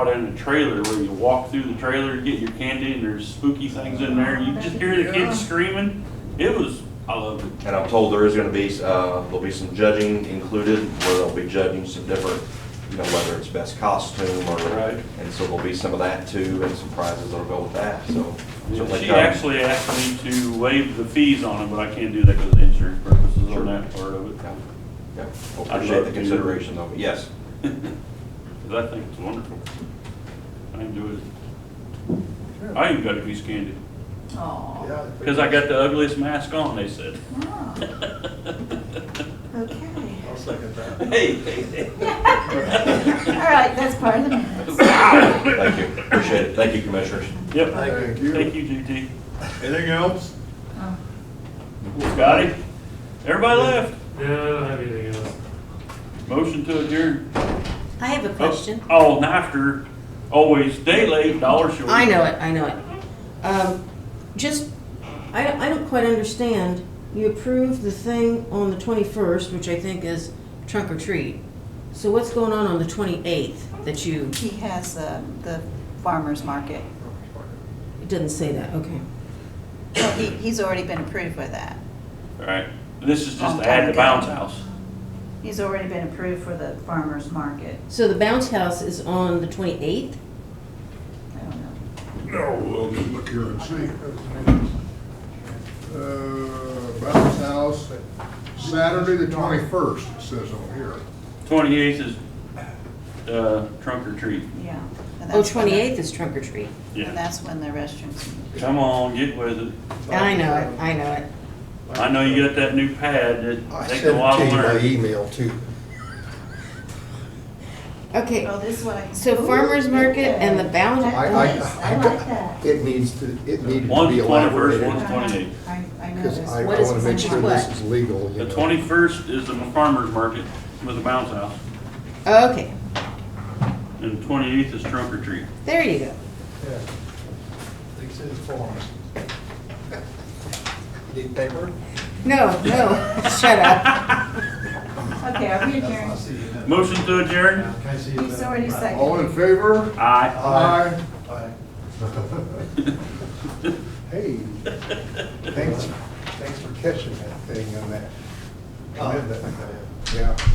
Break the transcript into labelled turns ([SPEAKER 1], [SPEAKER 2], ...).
[SPEAKER 1] out in a trailer where you walk through the trailer, you get your candy, and there's spooky things in there. You just hear the kids screaming. It was, I loved it.
[SPEAKER 2] And I'm told there is gonna be, uh, there'll be some judging included, where they'll be judging some different, you know, whether it's best costume or.
[SPEAKER 1] Right.
[SPEAKER 2] And so there'll be some of that too, and some prizes that'll go with that, so. um, certainly
[SPEAKER 1] She
[SPEAKER 2] come.
[SPEAKER 1] actually asked me to waive the fees on it, but I can't do that because of insurance purposes
[SPEAKER 2] Sure.
[SPEAKER 1] on that part of it.
[SPEAKER 2] Yeah, yeah. Well,
[SPEAKER 1] I'd
[SPEAKER 2] Appreciate
[SPEAKER 1] love
[SPEAKER 2] the
[SPEAKER 1] to.
[SPEAKER 2] consideration though, yes.
[SPEAKER 1] Because I think it's wonderful. I enjoyed it. I even got a piece of candy.
[SPEAKER 3] Aw.
[SPEAKER 4] Yeah.
[SPEAKER 1] Because I got the ugliest mask on, they said.
[SPEAKER 3] Ah, Okay.
[SPEAKER 4] I'll second that.
[SPEAKER 1] Hey, hey, hey.
[SPEAKER 3] All right, that's part of the minutes.
[SPEAKER 2] Thank you, appreciate it, thank you, commissioners.
[SPEAKER 1] Yep.
[SPEAKER 4] Thank
[SPEAKER 1] Thank
[SPEAKER 4] you.
[SPEAKER 1] you, GT.
[SPEAKER 4] Anything else?
[SPEAKER 3] Oh,
[SPEAKER 1] Scotty? Everybody left.
[SPEAKER 5] No, I don't have anything else.
[SPEAKER 1] Motion to adjourn.
[SPEAKER 6] I have a
[SPEAKER 1] Oh,
[SPEAKER 6] question.
[SPEAKER 1] Oh, and after, always day late, dollar short.
[SPEAKER 6] I know it, I know it. Um, just, I, don't- I don't quite understand. You approved the thing on the twenty-first, which I think is trunk or treat. So what's going on on the twenty-eighth that you,
[SPEAKER 3] He has uh, the farmer's market.
[SPEAKER 6] it doesn't say that, okay.
[SPEAKER 3] Well, he- He's already been approved by that.
[SPEAKER 1] All right. This is just
[SPEAKER 6] Oh,
[SPEAKER 3] Long
[SPEAKER 1] to add the
[SPEAKER 3] time ago.
[SPEAKER 1] bounce house.
[SPEAKER 3] He's already been approved for the farmer's market.
[SPEAKER 6] So the bounce house is on the twenty-eighth?
[SPEAKER 3] I
[SPEAKER 6] Oh,
[SPEAKER 3] don't know.
[SPEAKER 4] No, we'll just look here and see. Uh, Bounce house, Saturday the twenty-first, it says on here.
[SPEAKER 1] Twenty-eighth is, uh, trunk or treat.
[SPEAKER 3] Yeah. and
[SPEAKER 6] Oh,
[SPEAKER 3] that's when the-
[SPEAKER 6] 28th is trunk or treat.
[SPEAKER 3] And
[SPEAKER 1] Yeah.
[SPEAKER 3] that's when the restrooms.
[SPEAKER 1] Come on, get with it.
[SPEAKER 3] Oh,
[SPEAKER 6] I know it, I know it.
[SPEAKER 1] I know you got that new pad. It
[SPEAKER 7] I
[SPEAKER 1] takes
[SPEAKER 7] sent
[SPEAKER 1] a while to
[SPEAKER 7] it to you by
[SPEAKER 1] learn.
[SPEAKER 7] email too.
[SPEAKER 6] Okay,
[SPEAKER 3] Oh, this one. I-
[SPEAKER 6] so farmer's market and the bounce.
[SPEAKER 7] I, I, I It needs to, it needed to
[SPEAKER 1] One's
[SPEAKER 7] be
[SPEAKER 1] 21st,
[SPEAKER 7] elaborated.
[SPEAKER 1] one's twenty-eighth.
[SPEAKER 3] I, I know
[SPEAKER 7] Cause
[SPEAKER 3] this.
[SPEAKER 7] I
[SPEAKER 6] What is-
[SPEAKER 7] wanna make sure
[SPEAKER 6] what?
[SPEAKER 7] this is legal, you
[SPEAKER 1] The
[SPEAKER 7] know.
[SPEAKER 1] twenty-first is the farmer's market with the bounce house.
[SPEAKER 6] Okay,
[SPEAKER 1] And twenty-eighth is trunk or treat.
[SPEAKER 6] there you go.
[SPEAKER 4] Yeah. They said farm.
[SPEAKER 7] Need paper?
[SPEAKER 6] No, no, shut up.
[SPEAKER 3] Okay, are we adjourned?
[SPEAKER 1] Motion to adjourn?
[SPEAKER 3] He's already seconded.
[SPEAKER 4] All in favor?
[SPEAKER 1] Aye.
[SPEAKER 4] Aye. Hey, thanks, thanks for catching that thing on that. Commitment. Yeah.